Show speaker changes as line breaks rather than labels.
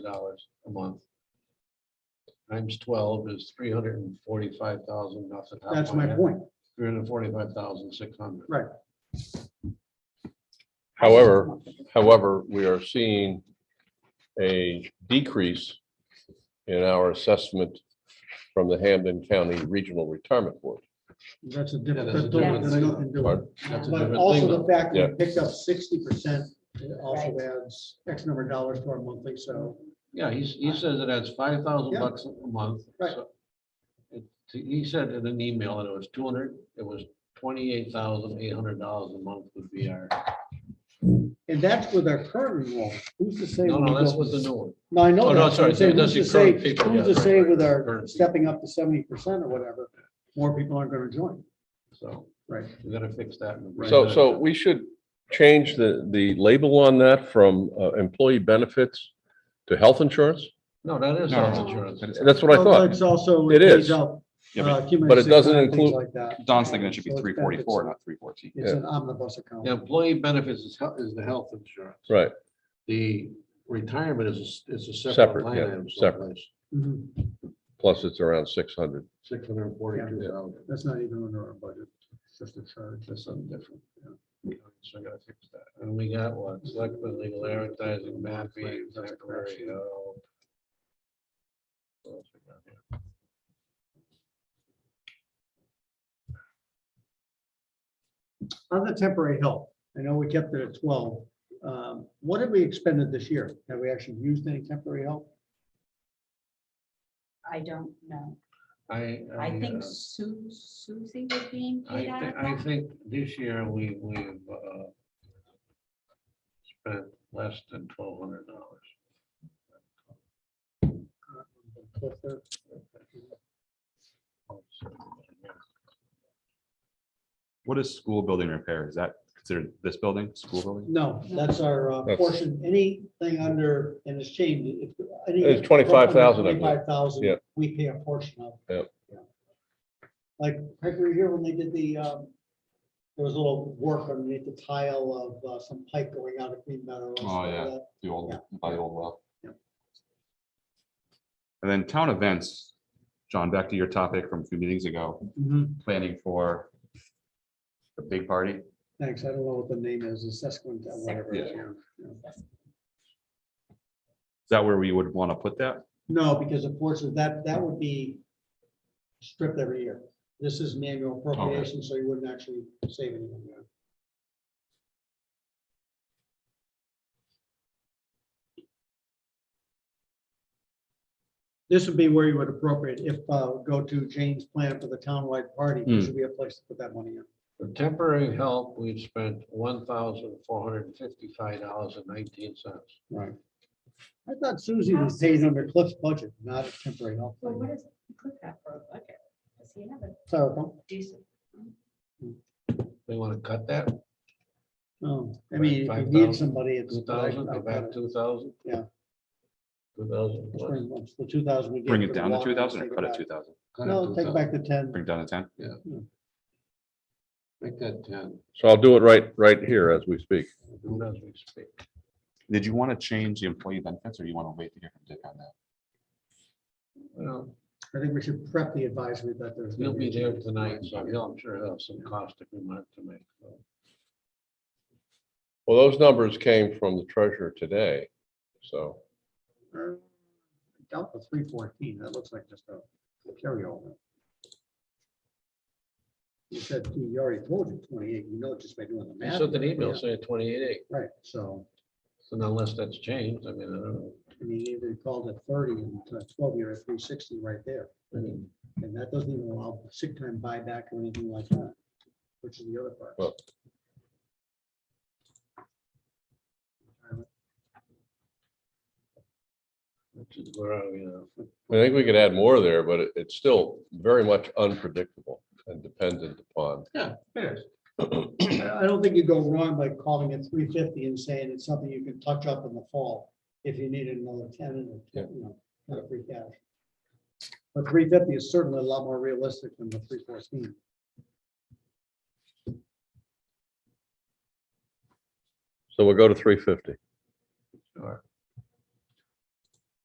dollars a month. Times twelve is three hundred and forty-five thousand, nothing.
That's my point.
Three hundred and forty-five thousand, six hundred.
Right.
However, however, we are seeing a decrease in our assessment from the Hampden County Regional Retirement Board.
That's a
Yeah,
different,
that's a
that don't-
different
that's
thing.
nothing to do with it.
That's a
But
different
also
thing.
the fact that
Yeah.
we picked up sixty percent, it also
Right.
adds X number of dollars to our monthly, so.
Yeah, he's, he says it adds five thousand
Yeah.
bucks a month.
Right.
so it- He said in an email that it was two hundred, it was twenty-eight thousand, eight hundred dollars a month would be our,
And that's with our current enrollment. Who's to say?
no,
when
no,
we
that's
go-
with the new one.
No, I know.
Oh, no,
that, but I'm
sorry,
saying
that's
Who's to
your current
say,
people,
who's
yeah,
to say
right,
with
right,
our
current.
stepping up to seventy percent or whatever, more people aren't gonna join,
So
right?
we gotta fix that. in the-
So, so we should change the, the label on that from uh, employee benefits to health insurance?
No, that is
No,
health
no,
insurance.
that is-
That's what
Well,
I thought.
It's also.
It
pays
is.
out,
Yeah,
uh,
but
accumulated
but it
sick
doesn't
time, things
include-
like that.
Don's thinking it should be
So it's
three forty-four, not three fourteen.
It's
Yeah.
an omnibus account.
The employee benefits is, hel- is the health insurance.
Right,
The retirement is, a s- is a separate
Separate,
line
yeah,
item.
separate.
Mhm.
plus it's around six hundred.
Six hundred and forty-two thousand,
That's not even under our budget, it's just a charge.
that's something different. yeah. So I gotta fix that. And we got what, selectmen, legal advertising, mapping,
That's a
temporary
correction.
help. What else we got here?
On the temporary help, I know we kept it at twelve. Um, What have we expended this year? Have we actually used any temporary help?
I don't know.
I.
I
uh,
think Su- Susie was being
I,
paid out
thi-
of
I
that.
think this year we, we've, uh, spent less than twelve hundred dollars.
What is school building repair? Is that considered this building, school building?
No, that's our uh,
That's-
portion, anything under, and it's changed.
It's 25,000, I believe.
Twenty-five thousand,
Yeah.
we pay a portion of.
Yeah.
Yeah. Like, heck, we were here when they did the, um, there was a little work underneath the tile of uh, some pipe going out of Green Meadow. or something like
yeah.
that.
The old,
Yeah.
by the old well.
Yep.
And then town events, John, back to your topic from a few meetings ago,
Mhm.
planning for the big party.
Thanks. I don't know what the name is, the Sesquint, whatever. it is,
Sesquint.
yeah.
Is that where we would want to put that?
No, because unfortunately, that, that would be stripped every year. This is an annual appropriation, so you wouldn't actually save anything there. This would be where you would appropriate if, uh, go to Jane's plan for the townwide party,
Hmm.
this would be a place to put that money in.
For temporary help, we've spent one thousand four hundred and fifty-five dollars and nineteen cents.
Right. I thought Susie was paid under Cliff's budget, not a temporary help.
Well, what is, put that for a budget? Does he have a
Terrible.
decent?
They want to cut that,
No, I mean, if you
Five
need
thousand,
somebody, it's.
two thousand, go
I- I-
back two thousand?
Yeah.
Two thousand.
Let's bring- let's- The two thousand. we gave
Bring
for
it
the
down to
walk,
two thousand or
let's
cut it
take
two
it
thousand?
back. No, take back the ten.
Bring it down to ten?
Make that ten,
So I'll do it right, right here as we speak.
who knows we speak.
Did you want to change the employee benefits or you want to wait to hear from Dick on that?
Well,
I think we should prep the advisory that there's.
he'll
gonna
be
a
there
change.
tonight, so he'll, I'm sure he'll have some caustic remark to make. so.
Well, those numbers came from the treasurer today, so.
Uh, Down to three fourteen, that looks like just a carryover. You said, you already told you twenty-eight, you know, just by doing the
He
math.
sent an email
Yeah,
saying twenty-eight,
Right, so,
and unless that's changed, I mean, I don't know.
I mean, either you called it thirty and uh, twelve, you're at three sixty right there. And that doesn't even allow sick time buyback or anything like that, which is the other part.
Well-
Which is where are we now?
I think we could add more there, but it- it's still very much unpredictable and dependent upon.
Yeah, it is.
I I don't think you go wrong by calling it three fifty and saying it's something you can touch up in the fall if you needed another tenant or,
Yeah.
you know, kind of free cash. But three fifty is certainly a lot more realistic than the three fourteen.
So we'll go to three fifty.
Sure.